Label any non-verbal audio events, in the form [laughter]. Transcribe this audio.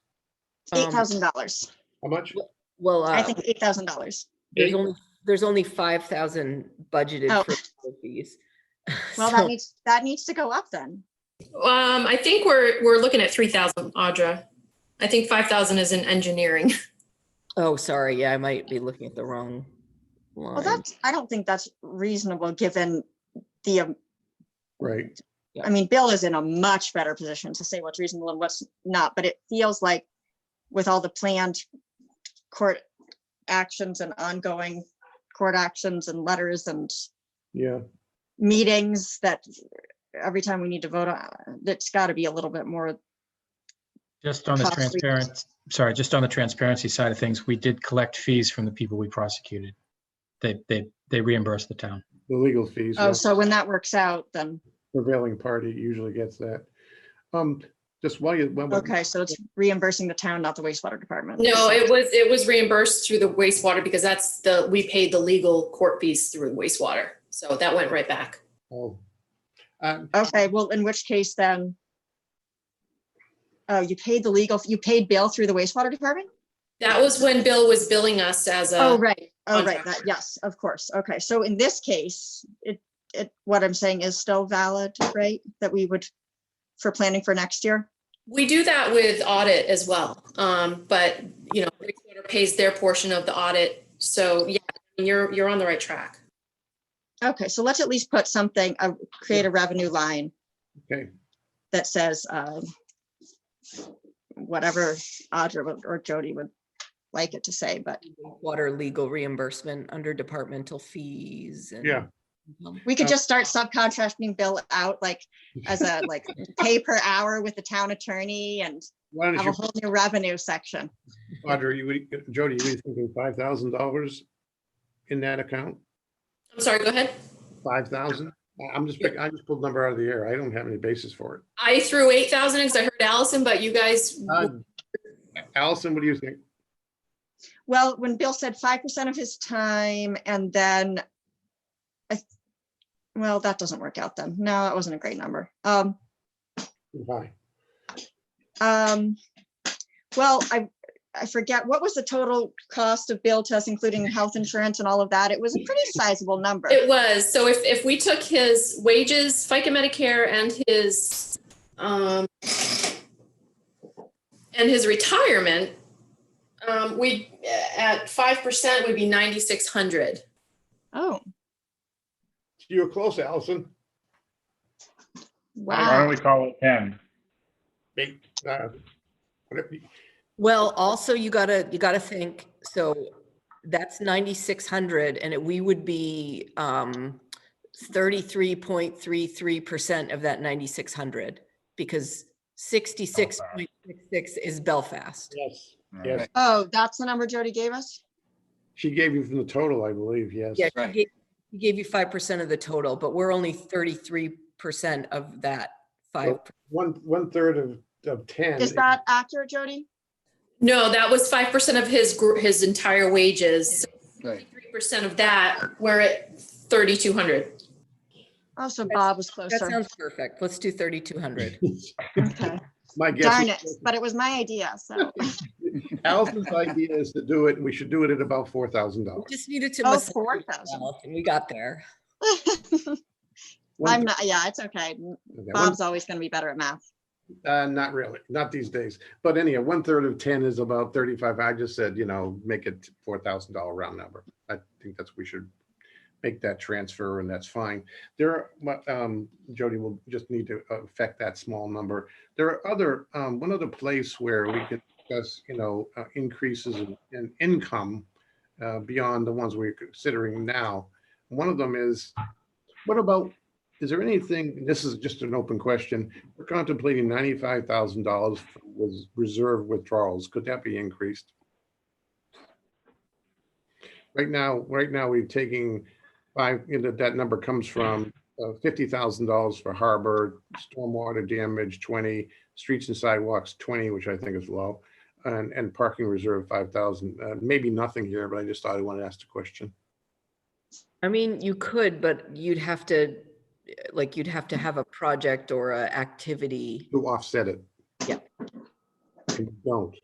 Eight Um, thousand dollars. How much? Well, I uh, think eight thousand dollars. there's Eight? only, there's only five thousand budgeted Oh. for legal [laughs] fees. Well, [laughs] that needs, that needs to go up then. Um, I think we're, we're looking at three thousand, Audra. I think five thousand is in engineering. [laughs] Oh, sorry, yeah, I might be looking at the wrong Well, line. that's, I don't think that's reasonable, given the, um, Right. I mean, Bill is in a much better position to say what's reasonable and what's not, but it feels like with all the planned court actions and ongoing court actions and letters and Yeah. meetings that every time we need to vote on, that's got to be a little bit more. Just on the costly. transparent, sorry, just on the transparency side of things, we did collect fees from the people we prosecuted. They, they, they reimbursed the town. The legal fees. Oh, yeah. so when that works out, then, Prevailing party usually gets that. Um, just while you. while we're- okay, so it's reimbursing the town, not the wastewater department. No, it was, it was reimbursed through the wastewater because that's the, we paid the legal court fees through wastewater. So that went right back. Oh. Um, Okay, well, in which case then? Oh, you paid the legal, you paid bail through the wastewater department? That was when Bill was billing us as Oh, a, right. Oh, right. contractor. That, yes, of course. Okay, so in this case, it, it, what I'm saying is still valid, right? That we would, for planning for next year? we do that with audit as well. Um, but, you know, wastewater pays their portion of the audit. So yeah, you're, you're on the right track. Okay, so let's at least put something, uh, create a revenue line Okay, that says, um, whatever Audra would- or Jody would like it to say, but Water legal reimbursement under departmental fees and. yeah. Mhm. we could just start subcontracting bill out like as a, like, pay per hour with the town attorney and Why don't have a you, whole new revenue section. Audra, you, would- Jody, you were thinking five thousand dollars in that account? I'm sorry, go ahead. Five thousand? I'm just, pick- I just pulled a number out of the air. I don't have any basis for it. I threw eight thousand because I heard Allison, but you guys, Mm-hmm. Um, Allison, what do you think? Well, when Bill said five percent of his time and then I, th- well, that doesn't work out then. No, that wasn't a great number. Um, Hi. um, well, I, I forget, what was the total cost of Bill to us, including health insurance and all of that? It was a pretty sizable number. It was. So if, if we took his wages, FICA Medicare and his, um, and his retirement, um, we, at 5% would be 9,600. Oh, You were close, Allison. Why don't wow. we call it 10? Eight, uh, whatever. Well, also you gotta, you gotta think, so that's ninety-six hundred and it- we would be, um, thirty-three point three-three percent of that ninety-six hundred because sixty-six point six-six is Belfast. Yes, All yes. right. Oh, that's the number Jody gave us? She gave you from the total, I believe, yes. Yeah, he Right. gave, he gave you five percent of the total, but we're only thirty-three percent of that five. Well, One, one third of, of ten. Is that accurate, Jody? No, that was 5% of his, gr- his entire wages. Right. 3% of that, we're at 3,200. Oh, so That's- Bob was That [laughs] closer. sounds perfect. Let's do thirty-two [laughs] hundred. Okay. My guess. Darn is- it, but it was my idea, [laughs] so. Allison's idea is to do it, and we should do it at about four thousand We dollars. just needed to. Oh, massage it 4,000. well, And we got there. I'm not, yeah, it's okay. Bob's always gonna be better at math. Uh, not really, not these days. But anyhow, one third of ten is about thirty-five. I just said, you know, make it four thousand dollar round number. I think that's, we should make that transfer and that's fine. There, are but, um, Jody will just need to uh, affect that small number. There are other, um, one other place where we could discuss, you know, uh, increases in- in income uh, beyond the ones we're considering now. One of them is, what about, is there anything, this is just an open question, we're contemplating ninety-five thousand dollars was reserve withdrawals. Could that be increased? Right now, right now, we're taking five, you know, that number comes from uh, fifty thousand dollars for harbor, stormwater damage, twenty, streets and sidewalks, twenty, which I think is low, and, and parking reserve, five thousand. Uh, maybe nothing here, but I just thought I wanted to ask the question. I mean, you could, but you'd have to, eh, like, you'd have to have a project or a activity. Who offset it? Yeah. And you Don't.